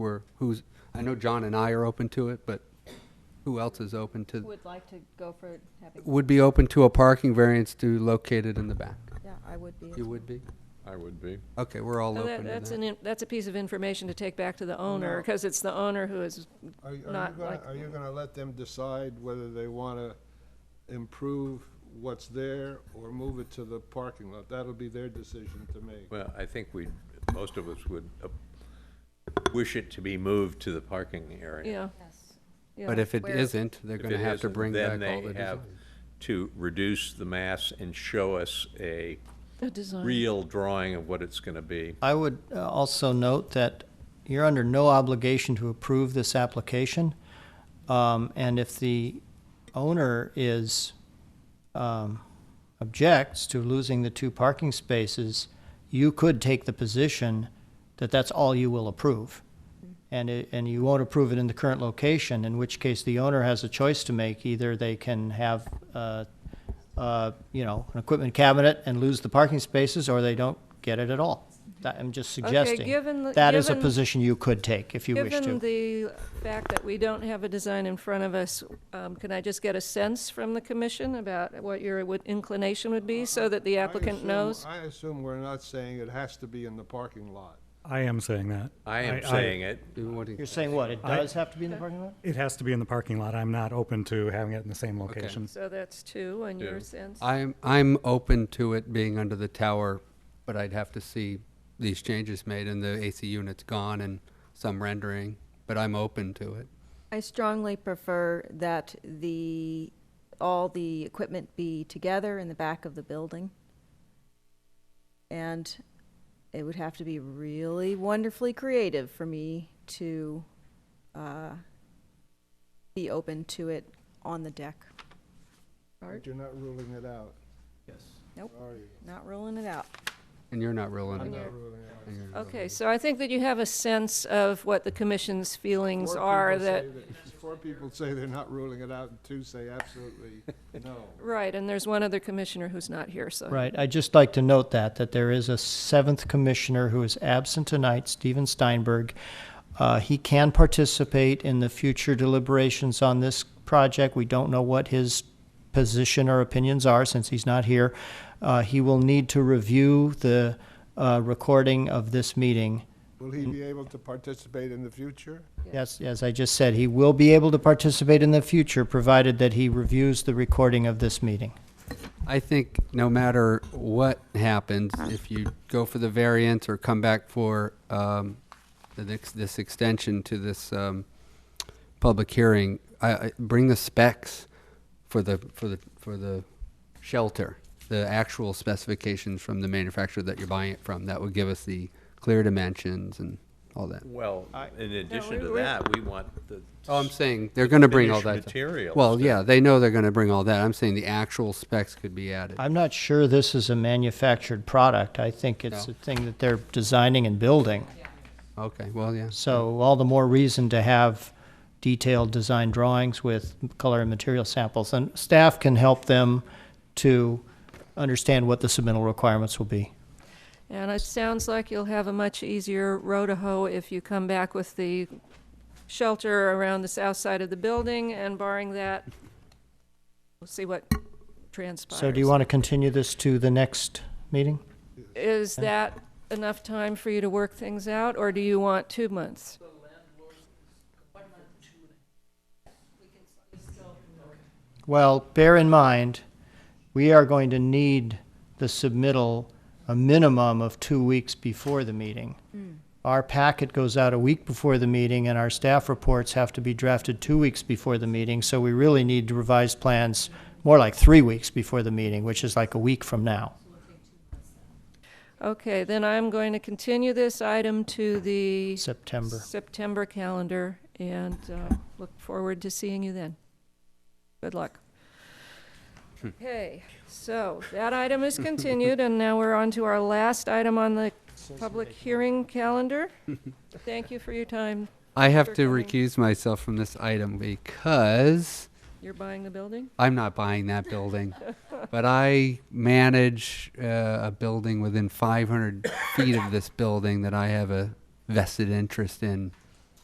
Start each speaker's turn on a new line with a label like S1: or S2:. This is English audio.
S1: were, who's, I know John and I are open to it, but who else is open
S2: Who
S1: to,
S2: Would like to go for having,
S1: would be open to a parking variance to locate it in the back?
S2: yeah, I would be. as
S1: You
S2: well.
S1: would be?
S3: I would be.
S1: Okay, we're all
S4: Well,
S1: open
S4: that- That's
S1: to
S4: an,
S1: that.
S4: in- that's a piece of information to take back to the owner,
S5: No.
S4: because it's the owner who is,
S5: Are you are you
S4: Not
S5: gonna,
S4: like-
S5: are you gonna let them decide whether they wanna improve what's there or move it to the parking lot? That'll be their decision to make.
S3: Well, I think we, most of us would uh, wish it to be moved to the parking area.
S4: yeah,
S2: Yes.
S4: yeah.
S1: But if it
S2: Where-
S1: isn't, they're
S3: If
S1: gonna
S3: it
S1: have to
S3: isn't,
S1: bring back all
S3: then
S1: the
S3: they have
S1: design.
S3: To reduce the mass and show us a
S4: A design.
S3: real drawing of what it's gonna be.
S6: I would uh, also note that you're under no obligation to approve this application. Um, and if the owner is, um, objects to losing the two parking spaces, you could take the position that that's all you will approve. And it, and you won't approve it in the current location, in which case the owner has a choice to make. Either they can have, uh, uh, you know, an equipment cabinet and lose the parking spaces, or they don't get it at all. That, I'm just suggesting.
S4: given the-
S6: That is a
S4: given-
S6: position you could take if you wish to.
S4: Given the fact that we don't have a design in front of us, um, can I just get a sense from the commission about what your would- inclination would be, so that the
S5: I
S4: applicant
S5: assume-
S4: knows?
S5: I assume we're not saying it has to be in the parking lot.
S7: I am saying that.
S3: I am saying it,
S1: Do you want to-
S6: You're saying what? It
S7: I-
S6: does have to be in the parking lot?
S7: It has to be in the parking lot. I'm not open to having it in the same location.
S4: So that's two, and your
S3: Yeah.
S4: sense?
S1: I'm, I'm open to it being under the tower, but I'd have to see these changes made and the AC units gone and some rendering, but I'm open to it.
S2: I strongly prefer that the, all the equipment be together in the back of the building. And it would have to be really wonderfully creative for me to uh, be open to it on the deck.
S5: But you're not ruling it out,
S2: Nope,
S5: are you?
S2: not ruling it out.
S1: And you're not ruling it
S5: Not
S1: out.
S5: ruling it out.
S1: And you're not ruling
S4: Okay, so I think that you have a sense of what the commission's feelings are that,
S5: Four people say they're not ruling it out, and two say absolutely no.
S4: right, and there's one other commissioner who's not here, so.
S6: Right, I'd just like to note that, that there is a seventh commissioner who is absent tonight, Steven Steinberg. Uh, He can participate in the future deliberations on this project. We don't know what his position or opinions are since he's not here. Uh, He will need to review the uh, recording of this meeting.
S5: Will he be able to participate in the future?
S6: Yes, as I just said, he will be able to participate in the future, provided that he reviews the recording of this meeting.
S1: I think no matter what happens, if you go for the variance or come back for um, the next, this extension to this um, public hearing, I, I, bring the specs for the for the for the shelter, the actual specifications from the manufacturer that you're buying it from. That would give us the clear dimensions and all that.
S3: well, in addition
S4: we-
S3: to
S4: we-
S3: that, we want the.
S1: Oh, I'm saying they're going to bring all that.
S3: Finished materials
S1: Well,
S3: that-
S1: yeah, they know they're going to bring all that. I'm saying the actual specs could be added.
S6: I'm not sure this is a manufactured product. I think it's
S1: No.
S6: a thing that they're designing and building.
S1: Okay, well, yeah.
S6: So all the more reason to have detailed design drawings with color and material samples. And staff can help them to understand what the submittal requirements will be.
S4: And it sounds like you'll have a much easier row to hoe if you come back with the shelter around the south side of the building, and barring that, we'll see what transpires.
S6: So do you want to continue this to the next meeting?
S4: Is that enough time for you to work things out, or do you want two months?
S6: Well, bear in mind, we are going to need the submittal a minimum of two weeks before the meeting. Our packet goes out a week before the meeting, and our staff reports have to be drafted two weeks before the meeting, so we really need to revise plans more like three weeks before the meeting, which is like a week from now.
S4: Okay, then I'm going to continue this item to the
S6: September.
S4: September calendar, and uh, look forward to seeing you then. Good luck. Okay, so that item is continued, and now we're on to our last item on the public hearing calendar. Thank you for your time.
S1: I have
S4: for
S1: to
S4: coming.
S1: recuse myself from this item because
S4: You're buying the building?
S1: I'm not buying that building, but I manage uh, a building within 500 feet of this building that I have a vested interest in